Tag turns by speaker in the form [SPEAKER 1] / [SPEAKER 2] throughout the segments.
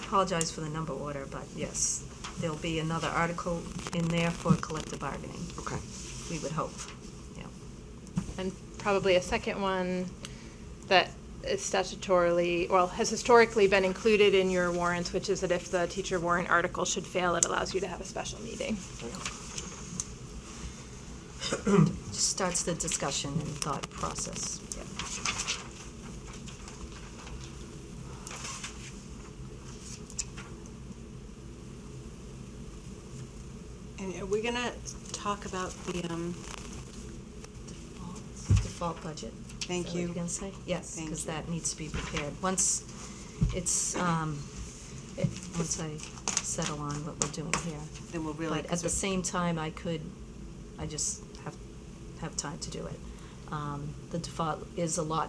[SPEAKER 1] apologize for the number order, but yes, there'll be another article in there for collective bargaining,
[SPEAKER 2] Okay.
[SPEAKER 1] we would hope, yeah.
[SPEAKER 3] and probably a second one that is statutorily, well, has historically been included in your warrants, which is that if the teacher warrant article should fail, it allows you to have a special meeting.
[SPEAKER 1] Just starts the discussion and thought process.
[SPEAKER 4] And are we gonna talk about the, um,
[SPEAKER 1] Default budget. Is
[SPEAKER 4] Thank
[SPEAKER 1] that what
[SPEAKER 4] you.
[SPEAKER 1] you're gonna say? Yes,
[SPEAKER 4] Thank
[SPEAKER 1] because
[SPEAKER 4] you.
[SPEAKER 1] that needs to be prepared. Once it's, um, it- once I settle on what we're doing here.
[SPEAKER 4] Then we'll really-
[SPEAKER 1] But at the same time, I could, I just have, have time to do it. Um, The default is a lot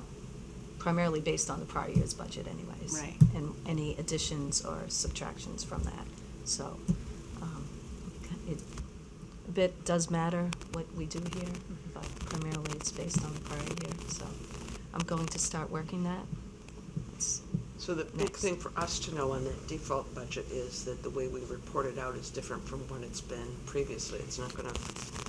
[SPEAKER 1] primarily based on the prior year's budget anyways.
[SPEAKER 4] Right.
[SPEAKER 1] And any additions or subtractions from that. So, um, it, a bit does matter what we do here,
[SPEAKER 2] Mm-hmm.
[SPEAKER 1] but primarily it's based on the prior year, so I'm going to start working that. It's-
[SPEAKER 2] So the big
[SPEAKER 1] Next.
[SPEAKER 2] thing for us to know on that default budget is that the way we report it out is different from what it's been previously. It's not gonna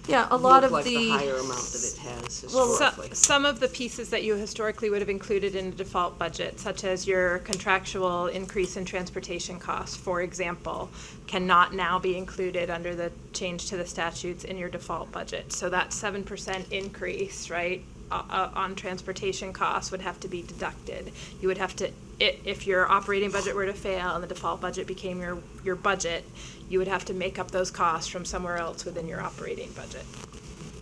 [SPEAKER 1] Yeah, a
[SPEAKER 2] look
[SPEAKER 1] lot of the.
[SPEAKER 2] like the higher amount that it has
[SPEAKER 1] Well,
[SPEAKER 3] So-
[SPEAKER 2] historically.
[SPEAKER 3] Some of the pieces that you historically would have included in the default budget, such as your contractual increase in transportation costs, for example, cannot now be included under the change to the statutes in your default budget. So that seven percent increase, right, o- o- on transportation costs would have to be deducted. You would have to, i- if your operating budget were to fail and the default budget became your, your budget, you would have to make up those costs from somewhere else within your operating budget.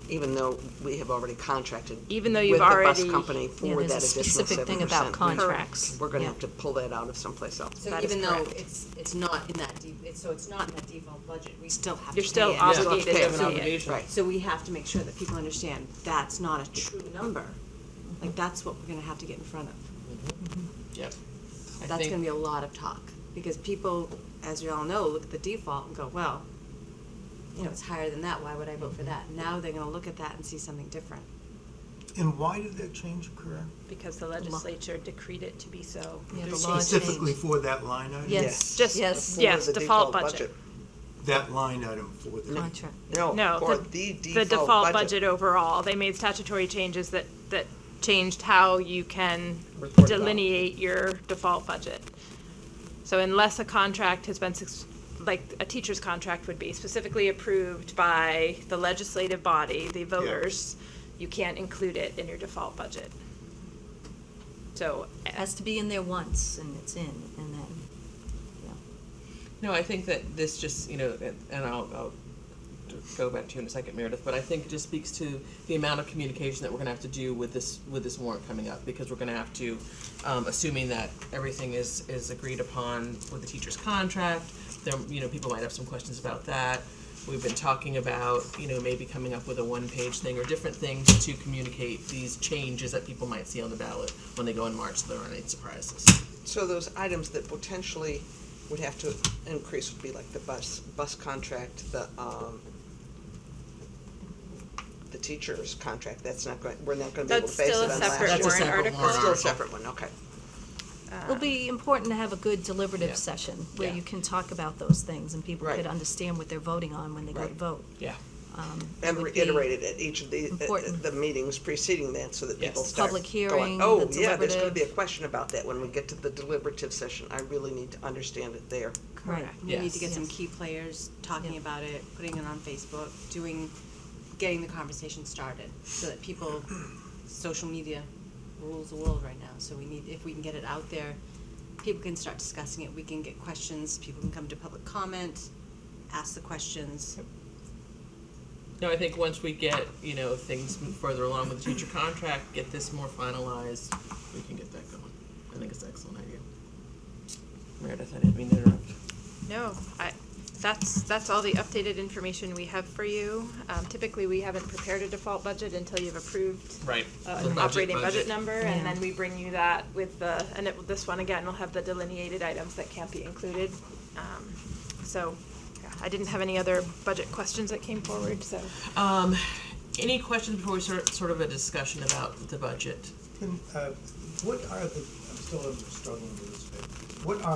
[SPEAKER 2] Even though we have already contracted.
[SPEAKER 3] Even though you've
[SPEAKER 2] With the
[SPEAKER 3] already-
[SPEAKER 2] bus company
[SPEAKER 1] Yeah,
[SPEAKER 2] for
[SPEAKER 1] there's a
[SPEAKER 2] that additional
[SPEAKER 1] specific
[SPEAKER 2] seven
[SPEAKER 1] thing about
[SPEAKER 2] percent.
[SPEAKER 1] contracts.
[SPEAKER 2] We're gonna
[SPEAKER 1] Yeah.
[SPEAKER 2] have to pull that out of someplace else.
[SPEAKER 5] So
[SPEAKER 3] That is
[SPEAKER 5] even though
[SPEAKER 3] correct.
[SPEAKER 5] it's, it's not in that deep, it's, so it's not in that default budget, we still have to pay
[SPEAKER 3] You're still
[SPEAKER 5] it.
[SPEAKER 3] obligated to
[SPEAKER 2] Yeah.
[SPEAKER 3] pay
[SPEAKER 2] Have an
[SPEAKER 3] it.
[SPEAKER 6] obligation.
[SPEAKER 2] Right.
[SPEAKER 5] So we have to make sure that people understand that's not a true number. Like, that's what we're gonna have to get in front of.
[SPEAKER 6] Yep. I
[SPEAKER 5] That's
[SPEAKER 6] think-
[SPEAKER 5] gonna be a lot of talk, because people, as you all know, look at the default and go, well, you know, it's higher than that, why would I vote for that? Now they're gonna look at that and see something different.
[SPEAKER 7] And why did that change occur?
[SPEAKER 3] Because the legislature decreed it to be so.
[SPEAKER 1] Yeah, the law
[SPEAKER 7] Specifically
[SPEAKER 1] changed.
[SPEAKER 7] for that line item?
[SPEAKER 1] Yes,
[SPEAKER 3] Just-
[SPEAKER 1] yes,
[SPEAKER 3] Yes, default budget.
[SPEAKER 7] That line item for the,
[SPEAKER 1] contract.
[SPEAKER 3] No, Oh, the, the default budget overall, they made statutory changes that, that changed how you can
[SPEAKER 6] Report it out.
[SPEAKER 3] delineate your default budget. So unless a contract has been, suc- like, a teacher's contract would be specifically approved by the legislative body, the voters, you can't include it in your default budget. So,
[SPEAKER 1] It has to be in there once, and it's in, and then, yeah.
[SPEAKER 6] No, I think that this just, you know, and and I'll, I'll d- go back to you in a second, Meredith, but I think it just speaks to the amount of communication that we're gonna have to do with this, with this warrant coming up, because we're gonna have to, um, assuming that everything is, is agreed upon with the teacher's contract, there, you know, people might have some questions about that. We've been talking about, you know, maybe coming up with a one-page thing or different things to communicate these changes that people might see on the ballot when they go in March, so there aren't any surprises.
[SPEAKER 2] So those items that potentially would have to increase would be like the bus, bus contract, the, um, the teacher's contract, that's not going, we're not gonna be able to
[SPEAKER 3] That's
[SPEAKER 2] base it
[SPEAKER 3] still
[SPEAKER 2] on
[SPEAKER 3] a
[SPEAKER 2] last
[SPEAKER 3] separate
[SPEAKER 2] year's.
[SPEAKER 6] That's a
[SPEAKER 3] warrant
[SPEAKER 6] separate
[SPEAKER 3] article.
[SPEAKER 6] warrant
[SPEAKER 2] Still a
[SPEAKER 6] article.
[SPEAKER 2] separate one, okay.
[SPEAKER 1] It'll be important to have a good deliberative
[SPEAKER 6] Yeah.
[SPEAKER 1] session, where
[SPEAKER 6] Yeah.
[SPEAKER 1] you can talk about those things, and people
[SPEAKER 2] Right.
[SPEAKER 1] could understand what they're voting on when they go to
[SPEAKER 2] Right.
[SPEAKER 1] vote.
[SPEAKER 6] Yeah.
[SPEAKER 2] And
[SPEAKER 1] would be
[SPEAKER 2] reiterated at each of the, at- at
[SPEAKER 1] important.
[SPEAKER 2] the meetings preceding that, so that
[SPEAKER 6] Yes.
[SPEAKER 2] people start
[SPEAKER 1] Public
[SPEAKER 2] going,
[SPEAKER 1] hearing, the
[SPEAKER 2] Oh, yeah, there's gonna be a
[SPEAKER 1] deliberative."
[SPEAKER 2] question about that when we get to the deliberative session, I really need to understand it there.
[SPEAKER 1] Right.
[SPEAKER 5] We need to get some
[SPEAKER 1] Yes.
[SPEAKER 5] key players talking
[SPEAKER 1] Yeah.
[SPEAKER 5] about it, putting it on Facebook, doing, getting the conversation started, so that people, social media rules the world right now, so we need, if we can get it out there, people can start discussing it, we can get questions, people can come to public comment, ask the questions.
[SPEAKER 6] No, I think once we get, you know, things move further along with the teacher contract, get this more finalized, we can get that going. I think it's an excellent idea. Meredith, I didn't mean to interrupt.
[SPEAKER 3] No, I, that's, that's all the updated information we have for you. Um, typically, we haven't prepared a default budget until you've approved
[SPEAKER 6] Right.
[SPEAKER 3] uh, an operating budget number, and
[SPEAKER 1] Yeah.
[SPEAKER 3] then we bring you that with the, and it, this one again will have the delineated items that can't be included. Um, So, yeah, I didn't have any other budget questions that came forward, so.
[SPEAKER 6] Um, any questions before we start sort of a discussion about the budget?
[SPEAKER 7] Can, uh, what are the, I'm still struggling with this bit. What are